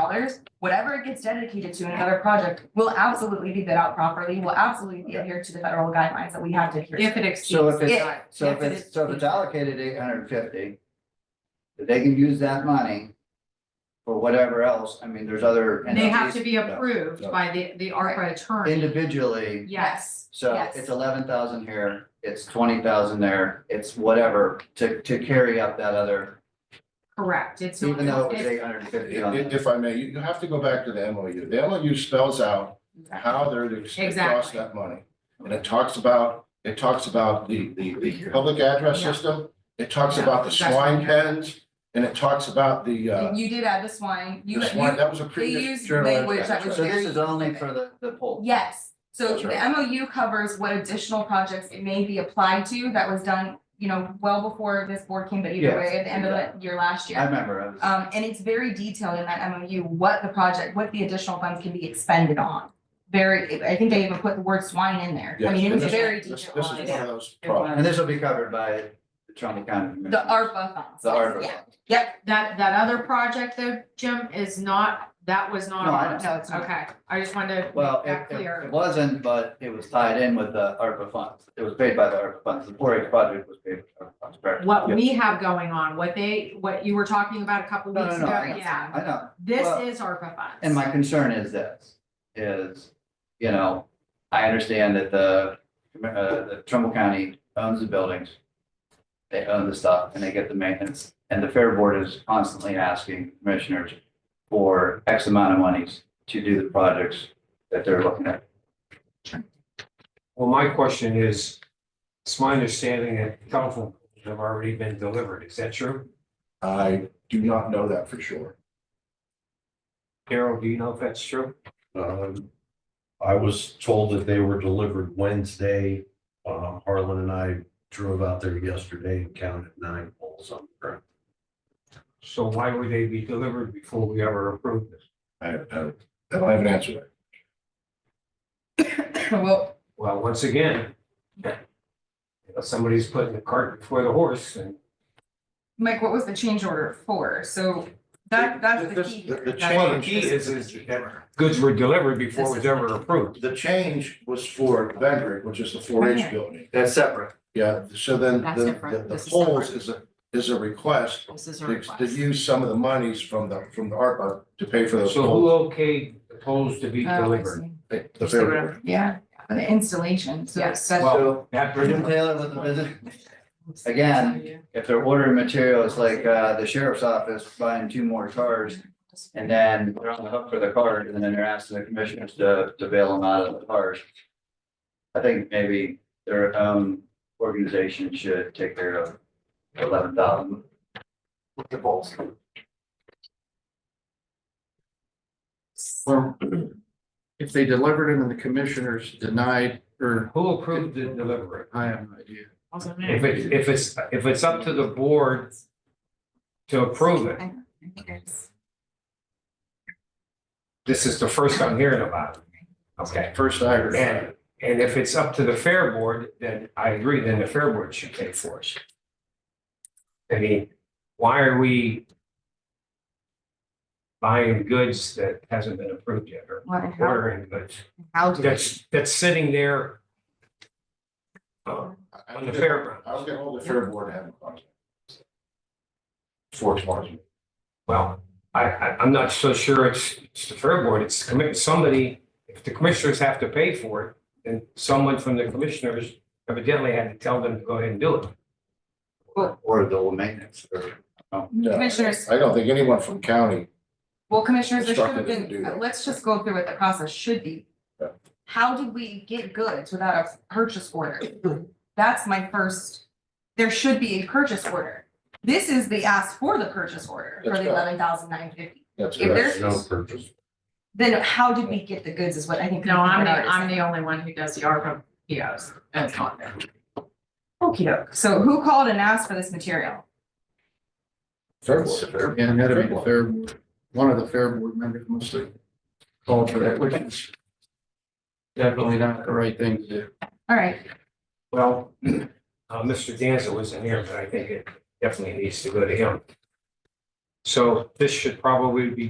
dollars, whatever it gets dedicated to in another project, will absolutely be bid out properly, will absolutely be Okay. adhered to the federal guidelines that we have to adhere to. If it So exceeds if the it's- time. So if it's, so if it's allocated eight hundred and fifty, they can use that money for whatever else, I mean, there's other. They have to be entities, approved no. by the, the ARPA attorney. Individually, Yes, so Yes. it's eleven thousand here, it's twenty thousand there, it's whatever, to, to carry up that other, correct. It's. even though it was it's- eight hundred and fifty on If, that. if I may, you, you have to go back to the MOU. The MOU spells out how they're to exhaust Exactly. that money. And it talks about, it talks about the, the, the public address Yeah. system. It talks Yeah, about the that's swine right. pens and it talks about the, uh, You did add the swine, you, the swine, you, that was a they previous used journal. language entry, that was So right. this is only for the, the poll. yes. So That's the right. MOU covers what additional projects it may be applied to that was done, you know, well before this board came, but either Yes, way, at the end of the year last year. I remember, I was- Um, and it's very detailed in that MOU, what the project, what the additional funds can be expended on. Very, I think they even put the word swine in there. I Yes, mean, and it's this- very this- detailed. This is one of those It was. problems. and this will be covered by the Trumbull County. Commission. The ARPA funds. The ARPA. Yeah, yep, That, that other project though, Jim, is not, that was not No, I ours. no, it's not. Okay, I just wanted to make Well, that it, it- clear. it wasn't, but it was tied in with the ARPA funds. It was paid by the ARPA funds. The four H project was paid. by the ARPA funds, correct? What Yeah. we have going on, what they, what you were talking about a couple No, no, weeks ago, no, I- yeah. I know, This Well, is ARPA funds. and my concern is this, is, you know, I understand that the, uh, the Trumbull County owns the buildings. They own the stuff and they get the maintenance, and the fair board is constantly asking commissioners for X amount of monies to do the projects that they're looking at. Well, my question is, it's my understanding that telephone poles have already been delivered. Is that true? I do not know that for sure. Carol, do you know if that's true? Um, I was told that they were delivered Wednesday. Um, Harlan and I drove out there yesterday and counted nine poles on the ground. So why would they be delivered before we ever approve this? I, I, I don't have an answer. well, Well, once again, you know, somebody's putting the cart before the horse and Mike, what was the change order for? So that, that's the This- key. The here. the That's- Well, the change. key is- is that- goods were delivered before it was ever approved. The change was for Vendrick, which is the four H Right. building. That's separate. Yeah, so then That's the, different. the- the This is polls is a, is a request This is a to to request. use some of the monies from the, from the ARPA to pay for those So who polls. okayed the poles to be Oh, I delivered? see. The fair- Yeah, the installation, so Yes. that's. So, That Jim brings- Taylor with the visit, again, if they're ordering materials like uh the sheriff's office buying two more cars. And then they're on the hook for the cars and then they're asking the commissioners to to bail them out of the cars. I think maybe their own organization should take care of eleven thousand. The bolts. Well, if they delivered it and the commissioners denied, or Who approved the delivery? I have no idea. If it's, if it's, if it's up to the board to approve it, this is the first I'm hearing about it. Okay, First I heard. and, and if it's up to the fair board, then I agree, then the fair board should pay for it. I mean, why are we buying goods that hasn't been approved yet, or Well, and how, ordering goods, how do we- that's, that's sitting there uh, I- I on the was- fairground? I was gonna hold the fair board to have a contact. For tomorrow's meeting. Well, I, I, I'm not so sure it's, it's the fair board, it's the commi- somebody, if the commissioners have to pay for it, then someone from the commissioners evidently had to tell them to go ahead and do it. Or the old maintenance or. No, Commissioners. I don't think anyone from county, Well, commissioners, there should have Instructed them to been, do that. let's just go through what the process should be. Yeah. How did we get goods without a purchase order? That's my first, there should be a purchase order. This is the ask for the purchase order for That's the right. eleven thousand nine fifty. that's If correct. there's- There's no purchase. Then how did we get the goods is what I think. No, I'm the, I'm the only one who does the ARPA POs. That's not there. Okey doke. So who called and asked for this material? Fair board. And that'd be the fair, one of the fair board members must have called for that, which is definitely not the right thing to do. All right, Well, uh, Mr. Danza wasn't here, but I think it definitely needs to go to him. So this should probably be